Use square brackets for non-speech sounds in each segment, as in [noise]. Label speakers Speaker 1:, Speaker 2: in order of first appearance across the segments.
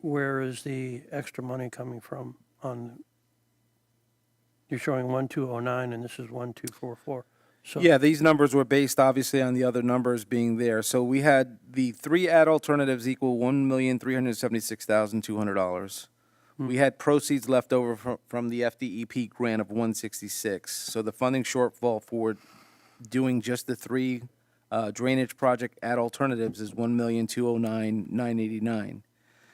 Speaker 1: where is the extra money coming from on, you're showing 1209 and this is 1244. So
Speaker 2: Yeah, these numbers were based obviously on the other numbers being there. So we had the three ad alternatives equal one million three hundred seventy-six thousand two hundred dollars. We had proceeds left over from, from the FDEP grant of one sixty-six. So the funding shortfall for doing just the three uh, drainage project ad alternatives is one million two oh nine nine eighty-nine.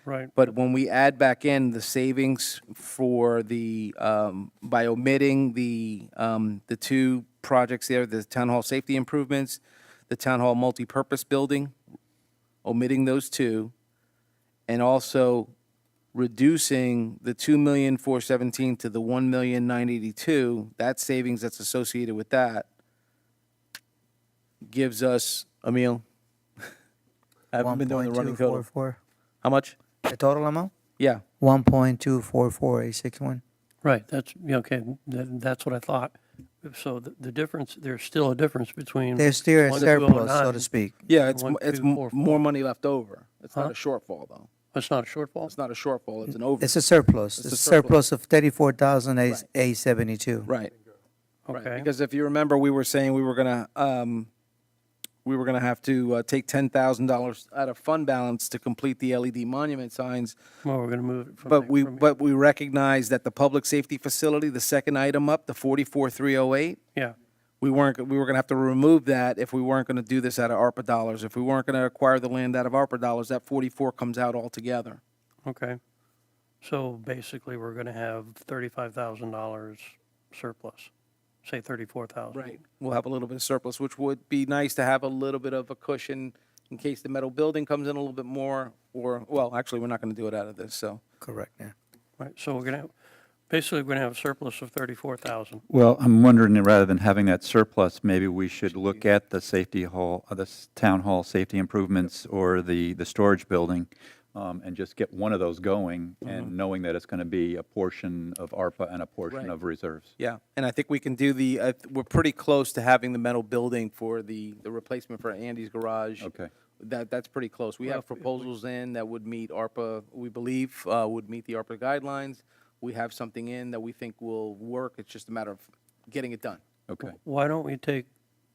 Speaker 1: Right,
Speaker 2: But when we add back in the savings for the, um, by omitting the, um, the two projects there, the town hall safety improvements, the town hall multipurpose building, omitting those two, and also reducing the two million four seventeen to the one million nine eighty-two, that savings that's associated with that gives us, Emil, [laughs] I haven't been doing the running code.
Speaker 3: 1.244.
Speaker 2: How much?
Speaker 3: The total amount?
Speaker 2: Yeah.
Speaker 3: One point two four four eight six one.
Speaker 1: right, that's, yeah, okay, th- that's what I thought. So the the difference, there's still a difference between.
Speaker 3: There's still a
Speaker 1: 1209.
Speaker 3: surplus, so to speak.
Speaker 2: Yeah, it's,
Speaker 1: One,
Speaker 2: mo- it's
Speaker 1: two,
Speaker 2: mo-
Speaker 1: four, four.
Speaker 2: more money left over. It's
Speaker 1: Huh?
Speaker 2: not a shortfall, though.
Speaker 1: It's not a shortfall?
Speaker 2: It's not a shortfall, it's an over.
Speaker 3: It's a surplus.
Speaker 2: It's a
Speaker 3: It's a
Speaker 2: surplus.
Speaker 3: surplus of thirty-four thousand eight seventy-two.
Speaker 2: Right. right.
Speaker 1: Okay,
Speaker 2: Because if you remember, we were saying we were gonna, um, we were gonna have to uh, take ten thousand dollars out of fund balance to complete the LED monument signs.
Speaker 1: well, we're going to move it from.
Speaker 2: But
Speaker 1: there-
Speaker 2: we,
Speaker 1: from here.
Speaker 2: but we recognize that the public safety facility, the second item up, the forty-four three oh eight,
Speaker 1: Yeah,
Speaker 2: we weren't, we were gonna have to remove that if we weren't gonna do this out of ARPA dollars. If we weren't gonna acquire the land out of ARPA dollars, that forty-four comes out altogether.
Speaker 1: okay. So basically, we're going to have $35,000 surplus, say 34,000.
Speaker 2: Right, we'll have a little bit of surplus, which would be nice to have a little bit of a cushion in case the metal building comes in a little bit more, or, well, actually, we're not gonna do it out of this, so.
Speaker 3: Correct, yeah.
Speaker 1: Right, so we're going to, basically, we're going to have a surplus of 34,000.
Speaker 4: Well, I'm wondering, that rather than having that surplus, maybe we should look at the safety hall, uh, the s- town hall safety improvements or the, the storage building, um, and just get one of those going,
Speaker 1: Mm-hmm.
Speaker 4: and knowing that it's going to be a portion of ARPA and a
Speaker 2: Right.
Speaker 4: portion of reserves.
Speaker 2: Yeah, and I think we can do the, uh, we're pretty close to having the metal building for the, the replacement for Andy's garage.
Speaker 4: Okay.
Speaker 2: That, that's pretty close. We have proposals in that would meet ARPA, we believe, uh, would meet the ARPA guidelines. We have something in that we think will work, it's just a matter of getting it done.
Speaker 4: Okay,
Speaker 1: Why don't we take,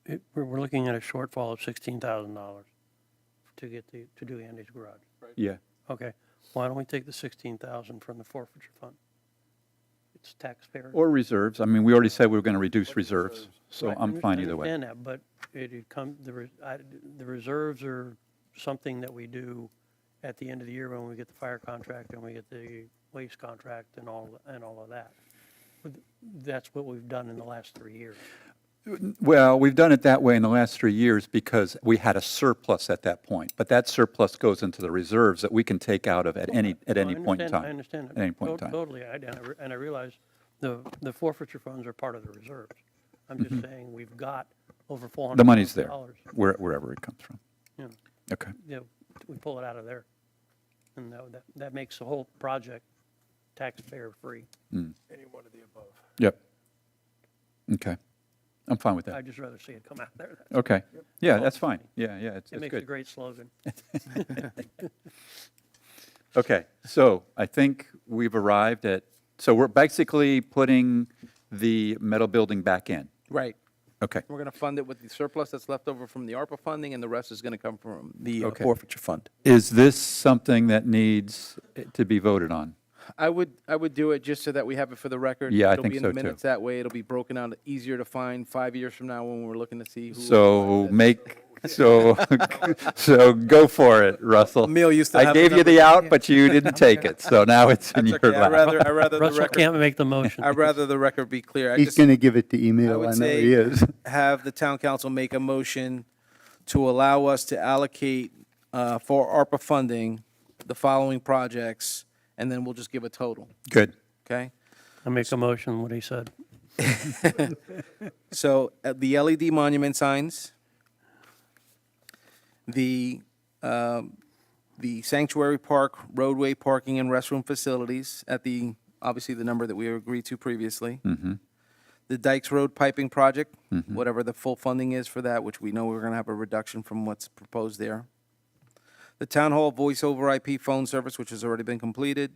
Speaker 1: it- we're, we're looking at a shortfall of $16,000 to get the, to do Andy's garage.
Speaker 4: yeah.
Speaker 1: Okay, why don't we take the 16,000 from the forfeiture fund? It's taxpayer.
Speaker 4: Or reserves, I mean, we already said we were going to reduce reserves, so
Speaker 1: Right,
Speaker 4: I'm
Speaker 1: under-
Speaker 4: fine either
Speaker 1: I
Speaker 4: way.
Speaker 1: understand that, but it it come, the, res- I- the reserves are something that we do at the end of the year when we get the fire contract and we get the waste contract and all, and all of that. But That's what we've done in the last three years.
Speaker 4: Well, we've done it that way in the last three years because we had a surplus at that point, but that surplus goes into the reserves that we can take out of at any, at
Speaker 1: No, I
Speaker 4: any point in
Speaker 1: understand-
Speaker 4: time.
Speaker 1: I understand. that.
Speaker 4: At any point in
Speaker 1: Tot-
Speaker 4: time.
Speaker 1: Totally, I- and I re- and I realize the the forfeiture funds are part of the reserves. I'm just saying, we've got over $400,000.
Speaker 4: Mm-hmm. The money's there, where- wherever it comes from.
Speaker 1: Yeah.
Speaker 4: Okay.
Speaker 1: you know, we pull it out of there. And that, that- that makes the whole project taxpayer-free.
Speaker 4: Yep. Okay. I'm fine with that.
Speaker 1: I'd just rather see it come out there. That-
Speaker 4: Okay. Yeah, that's fine. Yeah, yeah, it's
Speaker 1: It
Speaker 4: it's
Speaker 1: makes a
Speaker 4: good.
Speaker 1: great slogan.
Speaker 4: Okay, so I think we've arrived at, so we're basically putting the metal building back in.
Speaker 2: Right.
Speaker 4: Okay,
Speaker 2: We're going to fund it with the surplus that's left over from the ARPA funding, and the rest is going to come from the uh,
Speaker 4: Okay.
Speaker 2: forfeiture fund.
Speaker 4: is this something that needs eh, to be voted on?
Speaker 2: I would, I would do it just so that we have it for the record.
Speaker 4: Yeah, I
Speaker 2: It'll
Speaker 4: think
Speaker 2: be in the
Speaker 4: so, too.
Speaker 2: minutes that way. It'll be broken out, easier to find five years from now when we're looking to see who.
Speaker 4: So make, so, [laughs] so go for it, Russell.
Speaker 2: Emil used to
Speaker 4: I
Speaker 2: have the
Speaker 4: gave you the
Speaker 2: number. [laughs]
Speaker 4: out, but you didn't take it, so now it's in your
Speaker 2: That's okay. I'd
Speaker 4: lap.
Speaker 2: rather, I'd rather the
Speaker 1: Russell
Speaker 2: record,
Speaker 1: can't make the motion.
Speaker 2: I'd rather the record be clear. I
Speaker 5: He's
Speaker 2: just,
Speaker 5: going to give it to
Speaker 2: I
Speaker 5: email. I
Speaker 2: would
Speaker 5: know he
Speaker 2: say,
Speaker 5: is. [laughs]
Speaker 2: have the town council make a motion to allow us to allocate uh, for ARPA funding the following projects, and then we'll just give a total,
Speaker 4: Good.
Speaker 2: okay?
Speaker 1: I make a motion, what he said.
Speaker 2: So uh, the LED monument signs, the, um, the sanctuary park, roadway parking and restroom facilities at the, obviously the number that we agreed to previously. The Dykes Road piping project, whatever the full funding is for that, which we know we're going to have a reduction from what's proposed there. the town hall voice over IP phone service, which has already been completed,